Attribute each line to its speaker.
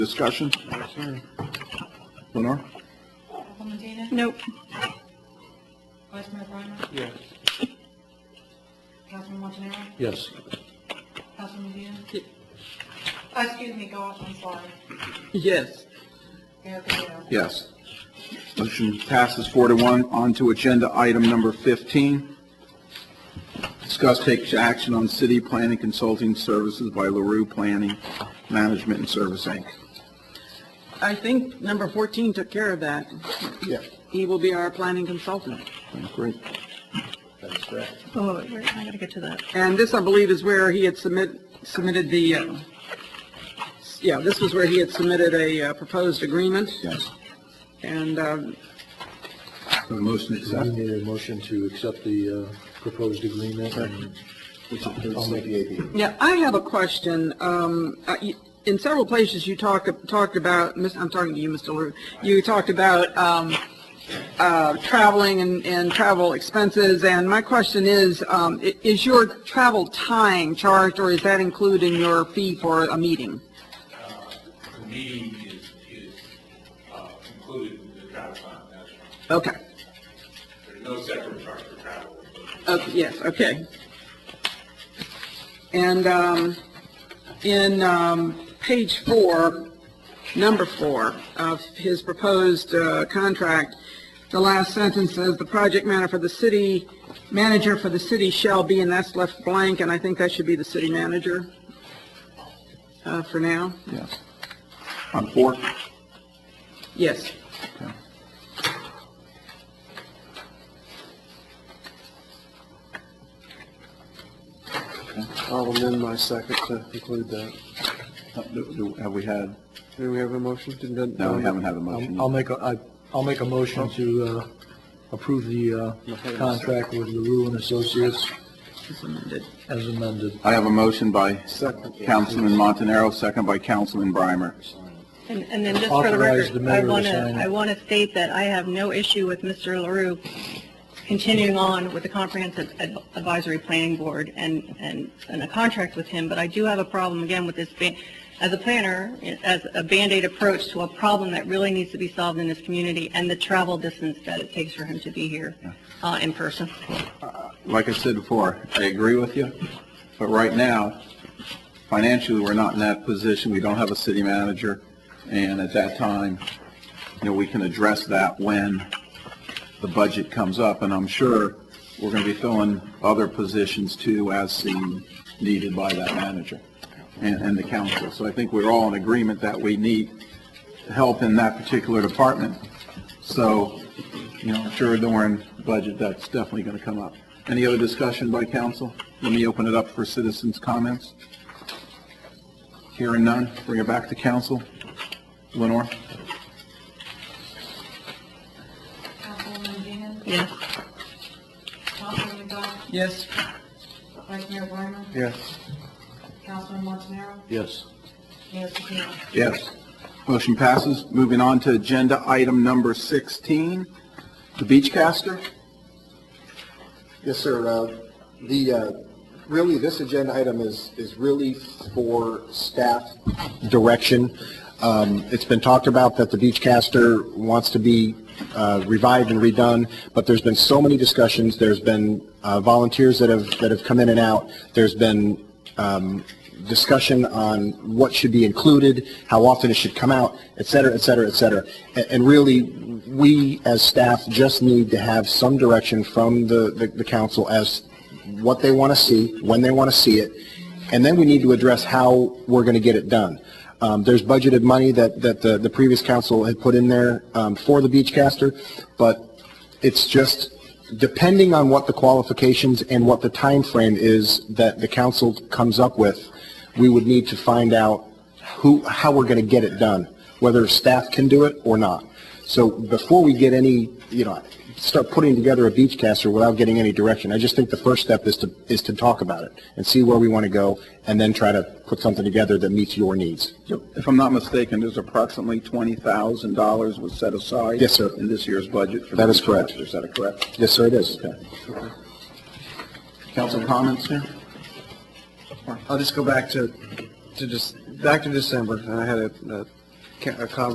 Speaker 1: Discussion? Lenore?
Speaker 2: Alderman Dina?
Speaker 3: Nope.
Speaker 2: Councilmember Breimer?
Speaker 1: Yes.
Speaker 2: Councilman Montanaro?
Speaker 1: Yes.
Speaker 2: Councilman Dean? Uh, Excuse me, Goff, I'm sorry.
Speaker 3: Yes.
Speaker 2: Mayor Guerrero?
Speaker 1: Yes. Motion passes four to one. On to agenda item number 15. Discuss take action on city planning consulting services by LaRue Planning Management and Service, Inc.
Speaker 3: I think number 14 took care of that.
Speaker 1: Yeah.
Speaker 3: He will be our planning consultant.
Speaker 1: Great. That's correct.
Speaker 3: Oh, I gotta get to that. And this, I believe, is where he had submit, submitted the, uh, s- yeah, this was where he had submitted a uh, proposed agreement,
Speaker 1: Yes.
Speaker 3: and um,
Speaker 1: Have a Motion to
Speaker 4: We
Speaker 1: accept.
Speaker 4: need a motion to accept the uh, proposed agreement. and I'll make the AD.
Speaker 3: Yeah, I have a question. Um, uh, you- in several places you talk, talked about, Miss- I'm talking to you, Mr. Lou, you talked about, um, uh, traveling and, and travel expenses, and my question is, um, i- is your travel time charged, or is that included in your fee for a meeting?
Speaker 5: The meeting is, is uh, included in the travel time, that's right.
Speaker 3: Okay,
Speaker 5: There's no separate charge for travel.
Speaker 3: Oh, yes, okay. And, um, in, um, page four, number four of his proposed uh, contract, the last sentence says, "The project manager for the city, manager for the city shall be," and that's left blank, and I think that should be the city manager uh, for now.
Speaker 1: Yes. On four?
Speaker 3: Yes.
Speaker 1: Okay.
Speaker 4: I'll amend my second to include that.
Speaker 1: Uh, do- do- Have we had,
Speaker 4: Do we have a motion? Didn't-
Speaker 1: No, we haven't had a motion.
Speaker 4: I'll I'll make, a- I- I'll make a motion to uh, approve the uh, contract with LaRue and Associates
Speaker 3: It's amended.
Speaker 4: as amended.
Speaker 1: I have a motion by
Speaker 4: Second.
Speaker 1: Councilman Montanaro, second by Councilman Breimer.
Speaker 6: And, and then just for the
Speaker 4: Authorize
Speaker 6: record,
Speaker 4: the mayor
Speaker 6: I
Speaker 4: to
Speaker 6: want to,
Speaker 4: sign.
Speaker 6: I want to state that I have no issue with Mr. LaRue continuing on with the Comprehensive Ad- Advisory Planning Board and, and, and a contract with him, but I do have a problem again with this, ban- as a planner, as a Band-Aid approach to a problem that really needs to be solved in this community and the travel distance that it takes for him to be here, uh, in person.
Speaker 1: Like I said before, I agree with you, but right now, financially, we're not in that position. We don't have a city manager, and at that time, you know, we can address that when the budget comes up, and I'm sure we're going to be filling other positions too as seen needed by that manager and, and the council. So I think we're all in agreement that we need help in that particular department. So, you know, I'm sure during budget, that's definitely going to come up. Any other discussion by council? Let me open it up for citizens' comments. Hearing none, bring it back to council. Lenore?
Speaker 2: Councilwoman Dean?
Speaker 6: Yes.
Speaker 2: Councilman Goff?
Speaker 3: Yes.
Speaker 2: Vice Mayor Breimer?
Speaker 1: Yes.
Speaker 2: Councilman Montanaro?
Speaker 4: Yes.
Speaker 2: Mayor Patino?
Speaker 1: Yes. Motion passes. Moving on to agenda item number 16, the Beachcaster.
Speaker 7: Yes, sir. Uh, The, uh, really, this agenda item is, is really for staff direction. Um, It's been talked about that the Beachcaster wants to be uh, revived and redone, but there's been so many discussions. There's been uh, volunteers that have, that have come in and out. There's been um, discussion on what should be included, how often it should come out, et cetera, et cetera, et cetera. A- And really, we as staff just need to have some direction from the, the- the council as what they want to see, when they want to see it, and then we need to address how we're going to get it done. Um, There's budgeted money that, that the, the previous council had put in there um, for the Beachcaster, but it's just depending on what the qualifications and what the time frame is that the council comes up with, we would need to find out who, how we're going to get it done, whether staff can do it or not. So before we get any, you know, start putting together a beach caster without getting any direction, I just think the first step is to, is to talk about it and see where we want to go and then try to put something together that meets your needs.
Speaker 1: If I'm not mistaken, there's approximately $20,000 was set aside.
Speaker 7: Yes, sir.
Speaker 1: In this year's budget. for the
Speaker 7: That is correct.
Speaker 1: Beachcaster. Is that correct?
Speaker 7: Yes, sir, it is.
Speaker 1: Council comments here?
Speaker 8: I'll just go back to, to just, back to December, and I had a, a
Speaker 7: ca- a conversation